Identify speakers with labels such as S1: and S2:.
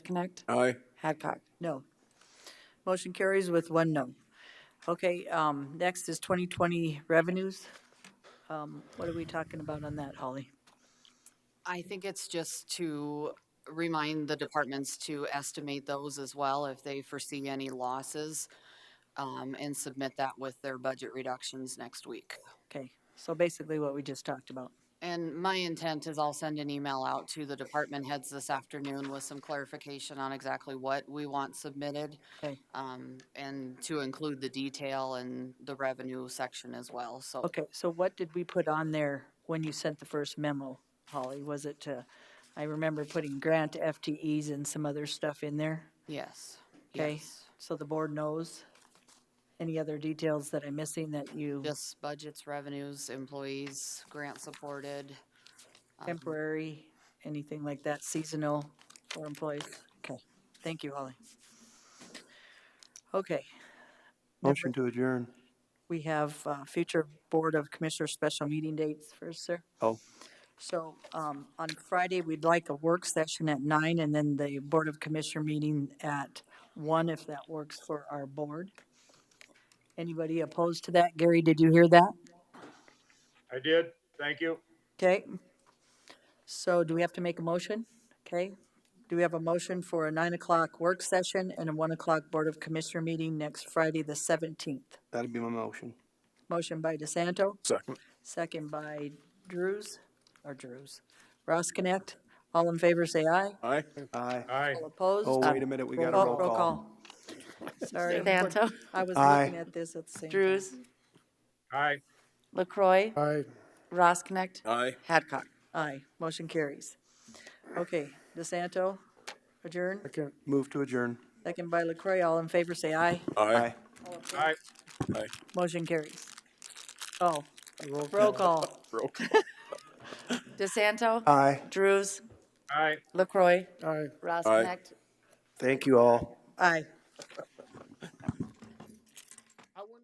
S1: Connect,
S2: Aye.
S1: Hadcock.
S3: No. Motion carries with one no. Okay, um, next is 2020 revenues. Um, What are we talking about on that, Holly?
S4: I think it's just to remind the departments to estimate those as well if they foresee any losses um, and submit that with their budget reductions next week.
S3: Okay, so basically what we just talked about.
S4: And my intent is I'll send an email out to the department heads this afternoon with some clarification on exactly what we want submitted
S3: Okay,
S4: um, and to include the detail and the revenue section as well. So
S3: okay, so what did we put on there when you sent the first memo, Holly? Was it, uh, I remember putting grant FTEs and some other stuff in there?
S4: yes,
S3: Okay,
S4: yes.
S3: so the board knows. Any other details that I'm missing that you,
S4: Just budgets, revenues, employees, grant supported. um,
S3: temporary, anything like that, seasonal for employees? Okay, thank you, Holly. Okay,
S2: Motion to adjourn.
S3: we have uh, future Board of Commissioners special meeting dates first, sir.
S2: Oh.
S3: So um, on Friday, we'd like a work session at nine and then the Board of Commissioner meeting at one, if that works for our board. Anybody opposed to that? Gary, did you hear that?
S5: I did, thank you.
S3: Okay. So do we have to make a motion? Okay. Do we have a motion for a nine o'clock work session and a one o'clock Board of Commissioner meeting next Friday, the seventeenth?
S2: That'd be my motion.
S3: Motion by DeSanto,
S2: Second.
S3: second by Drews, or Drews. Ross Connect, all in favor, say aye.
S2: Aye. Aye.
S5: Aye.
S3: All opposed?
S2: Oh, wait a minute, we got a
S3: Oh,
S2: roll call.
S3: call. Sorry,
S1: Santo,
S3: I was
S2: Aye.
S3: looking at this at the same time.
S1: Drews,
S5: Aye.
S1: LaCroy. Aye. Ross Connect,
S2: Aye.
S1: Hadcock.
S3: Aye, motion carries. Okay, DeSanto, adjourn.
S2: Move to adjourn.
S3: Second by LaCroy, all in favor, say aye.
S2: Aye.
S5: Aye.
S2: Aye.
S3: Motion carries. Oh, roll call.
S2: Roll call.
S1: DeSanto,
S2: Aye.
S1: Drews,
S5: Aye.
S1: LaCroy. Aye. Ross
S2: Aye.
S1: Connect,
S2: Thank you all.
S3: Aye.